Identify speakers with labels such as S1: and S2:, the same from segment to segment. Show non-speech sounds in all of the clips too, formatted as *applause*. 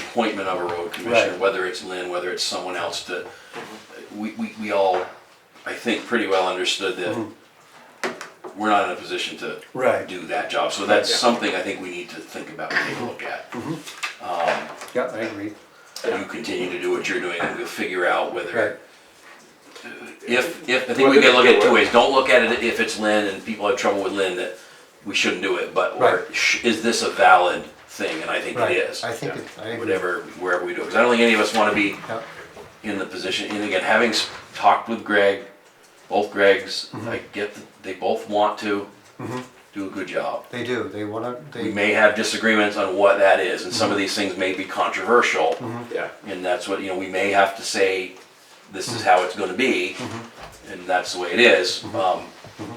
S1: appointment of a road commissioner,
S2: Right.
S1: whether it's Lynn, whether it's someone else, that we, we, we all, I think, pretty well understood that we're not in a position to
S2: Right.
S1: do that job, so that's
S3: Yeah.
S1: something I think we need to think about and take a look at.
S2: Yeah, I agree.
S1: You continue to do what you're doing, and we'll figure out
S2: Right.
S1: whether, if, if, I think we can look at it two ways, don't look at it if it's Lynn and people have trouble with Lynn, that we shouldn't do it, but, or,
S2: Right.
S1: sh- is this a valid thing, and I think it
S2: Right.
S1: is.
S4: I think it, I agree.
S1: whatever, wherever we do, because I don't think any of us want to be
S4: Yeah.
S1: in the position, and again, having s- talked with Greg, both Gregs, I get that they both want to do a good job.
S4: They do, they wanna,
S1: We
S4: they,
S1: may have disagreements on what that is, and some of these things may be controversial,
S3: Yeah,
S1: and that's what, you know, we may have to say, this is how it's gonna be, and that's the way it is, um,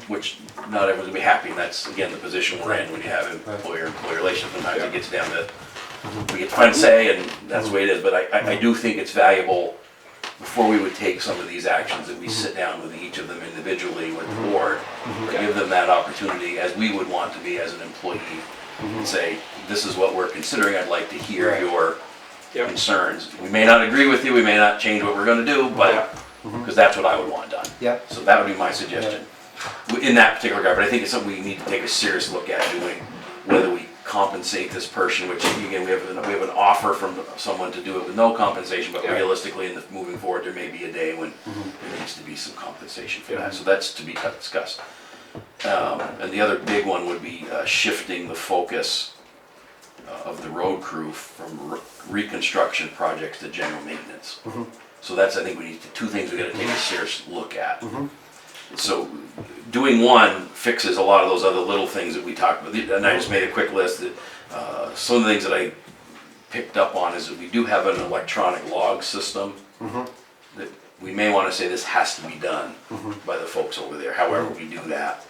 S1: which not everyone's gonna be happy, and that's, again, the position we're in when you have employer-employee relations, sometimes
S3: Yeah.
S1: it gets down to, we get to find say, and that's the way it is, but I, I, I do think it's valuable, before we would take some of these actions, that we sit down with each of them individually with the board, or
S3: Yeah.
S1: give them that opportunity, as we would want to be as an employee, and say, this is what we're considering, I'd like to hear
S2: Right.
S1: your
S3: yeah,
S1: concerns. We may not agree with you, we may not change what we're gonna do,
S3: Yeah.
S1: but, because that's what I would want done.
S2: Yeah.
S1: So that would be my suggestion, w- in that particular regard, but I think it's something we need to take a serious look at doing, whether we compensate this person, which again, we have, an- we have an offer from someone to do it with no compensation, but
S3: Yeah. Mm-hmm.
S1: realistically, in the, moving forward, there may be a day when there needs to be some compensation for
S3: Yeah.
S1: that, so that's to be discussed. Um, and the other big one would be uh, shifting the focus uh, of the road crew from re- reconstruction projects to general maintenance.
S3: Mm-hmm.
S1: So that's, I think we need, to- two things we gotta take a serious look at.
S3: Mm-hmm.
S1: So doing one fixes a lot of those other little things that we talked about, and I just made a quick list that, uh, some of the things that I picked up on is that we do have an electronic log system that we may wanna say this has to be done by the folks over there, however we do that.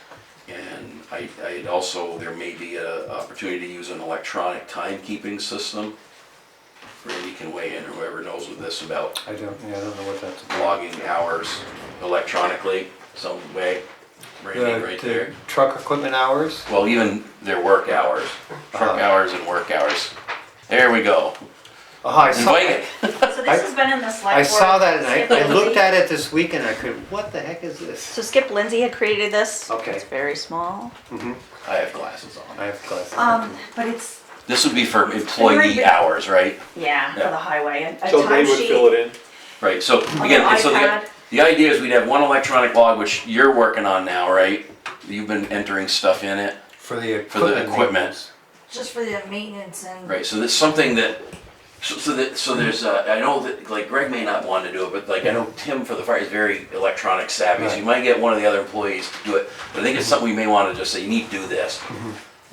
S1: And I, I also, there may be a opportunity to use an electronic timekeeping system. Randy can weigh in, or whoever knows with this about
S2: I don't, yeah, I don't know what that's about.
S1: logging hours electronically some way. Randy
S2: The-
S1: right
S2: the
S1: there.
S2: Truck equipment hours?
S1: Well, even their work hours, truck
S2: Uh-huh.
S1: hours and work hours. There we go.
S2: Oh, I saw,
S1: Invite it.
S5: So this has been in the slide.
S2: I saw that and I, I looked at it this week and I could, what the heck is this?
S5: So Skip Lindsay had created this.
S2: Okay.
S5: It's very small.
S1: I have glasses on.
S2: I have class.
S5: Um, but it's,
S1: This would be for employee
S5: Right.
S1: hours, right?
S5: yeah, for
S1: Yeah.
S5: the highway, and a
S3: so they would fill
S5: timesheet.
S3: it in,
S1: Right, so
S5: On
S1: again,
S5: an
S1: and so the,
S5: iPad.
S1: the idea is we'd have one electronic log, which you're working on now, right? You've been entering stuff in it,
S2: For the equipment.
S1: for the equipment.
S2: maintenance.
S6: Just for the maintenance and.
S1: Right, so that's something that, so, so that, so there's, uh, I know that, like Greg may not want to do it, but like, I know Tim for the fire is very electronic savvy, so you might get one of the other employees to do it, but I think it's something we may want to just say, you need to do this.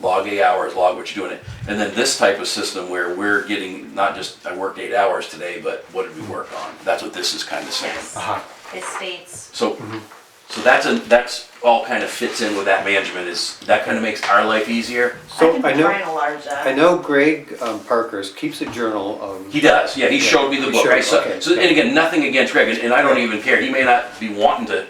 S1: Log eight hours, log what you're doing it, and then this type of system where we're getting, not just, I worked eight hours today, but what did we work on? That's what this is kind of saying.
S5: Yes,
S2: Uh-huh.
S5: it states.
S1: So, so that's a, that's all kind of fits in with that management is, that kind of makes our life easier.
S2: So I
S5: can try and
S2: know,
S5: enlarge that.
S2: I know Greg um, Parker's keeps a journal
S1: He
S2: of,
S1: does, yeah, he showed me the
S2: He
S1: book,
S2: showed-
S1: right, so,
S2: okay,
S1: so, and
S2: yeah.
S1: again, nothing against Greg, and- and I don't even care, he may not be wanting to,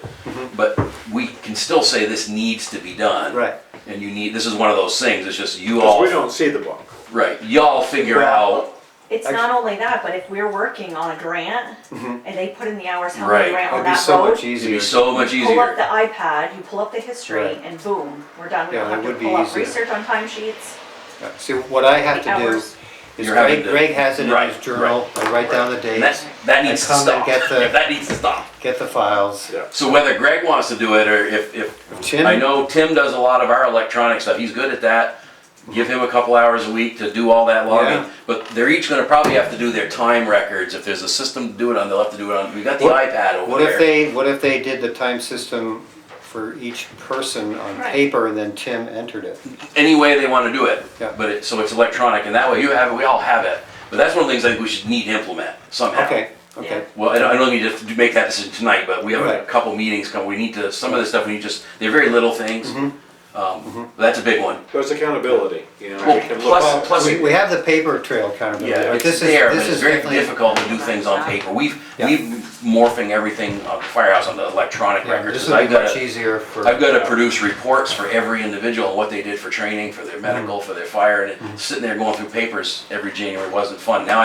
S1: but we can still say this needs to be done.
S2: Mm-hmm. right,
S1: And you need, this is one of those things, it's just you
S3: because we
S1: all,
S3: don't see the book.
S1: right, y'all figure
S2: Well-
S1: out,
S5: It's not only that, but if we're working on a grant and they put in the hours, how
S1: Right.
S5: many grant on
S2: it'd Mm-hmm. be
S5: that
S2: so
S5: road?
S2: much
S1: it'd be
S2: easier.
S1: so much
S5: Pull up the
S1: easier.
S5: iPad, you pull up the history
S2: Right.
S5: and boom, we're done. We
S2: Yeah,
S5: don't
S2: that
S5: have to
S2: would be
S5: pull up
S2: easier.
S5: research on timesheets.
S2: Yeah, See, what I have
S5: The
S2: to do
S5: hours.
S2: is
S1: You're having
S2: Greg,
S1: to-
S2: Greg has it in
S1: right,
S2: his journal, I write down the
S1: And that's,
S2: dates,
S1: that needs to
S2: come and
S1: stop,
S2: get the-
S1: Yeah, *laughs* that needs to stop.
S2: get the files.
S3: Yeah.
S1: So whether Greg wants to do it, or if, if,
S2: Tim?
S1: I know Tim does a lot of our electronic stuff, he's good at that. Give him a couple hours a week to do all that
S2: Yeah.
S1: logging, but they're each gonna probably have to do their time records, if there's a system to do it on, they'll have to do it on, we got the
S2: What-
S1: iPad over
S2: What if
S1: there.
S2: they, what if they did the time system for each person on
S5: Right.
S2: paper and then Tim entered it?
S1: Any way they wanna do it,
S2: Yeah.
S1: but it, so it's electronic, and that way you have it, we all have it. But that's one of the things I think we should need to implement somehow.
S2: Okay, okay.
S1: Well, I don't, I don't think you have to make that decision tonight, but we have a
S2: Right.
S1: couple meetings coming, we need to, some of this stuff, we need just, they're very little things.
S2: Mm-hmm.
S1: Um, but that's a big one.
S3: There's accountability, you know,
S1: Well,
S3: we can look.
S1: plus-
S3: at it.
S1: plus-
S2: We, we have the paper trail kind of,
S1: Yeah,
S2: but
S1: it's
S2: this is,
S1: there, but
S2: this
S1: it's
S2: is
S1: very
S2: definitely.
S1: difficult to do things on paper. We've,
S2: Yeah.
S1: we've morphing everything on the firehouse onto electronic
S2: Yeah,
S1: records.
S2: This
S1: 'cause
S2: would
S1: I've
S2: be
S1: gotta-
S2: much easier for.
S1: I've got to produce reports for every individual on what
S2: Mm-hmm.
S1: they did for training, for their medical, for their fire, and it- sitting there going through papers every January wasn't fun. Now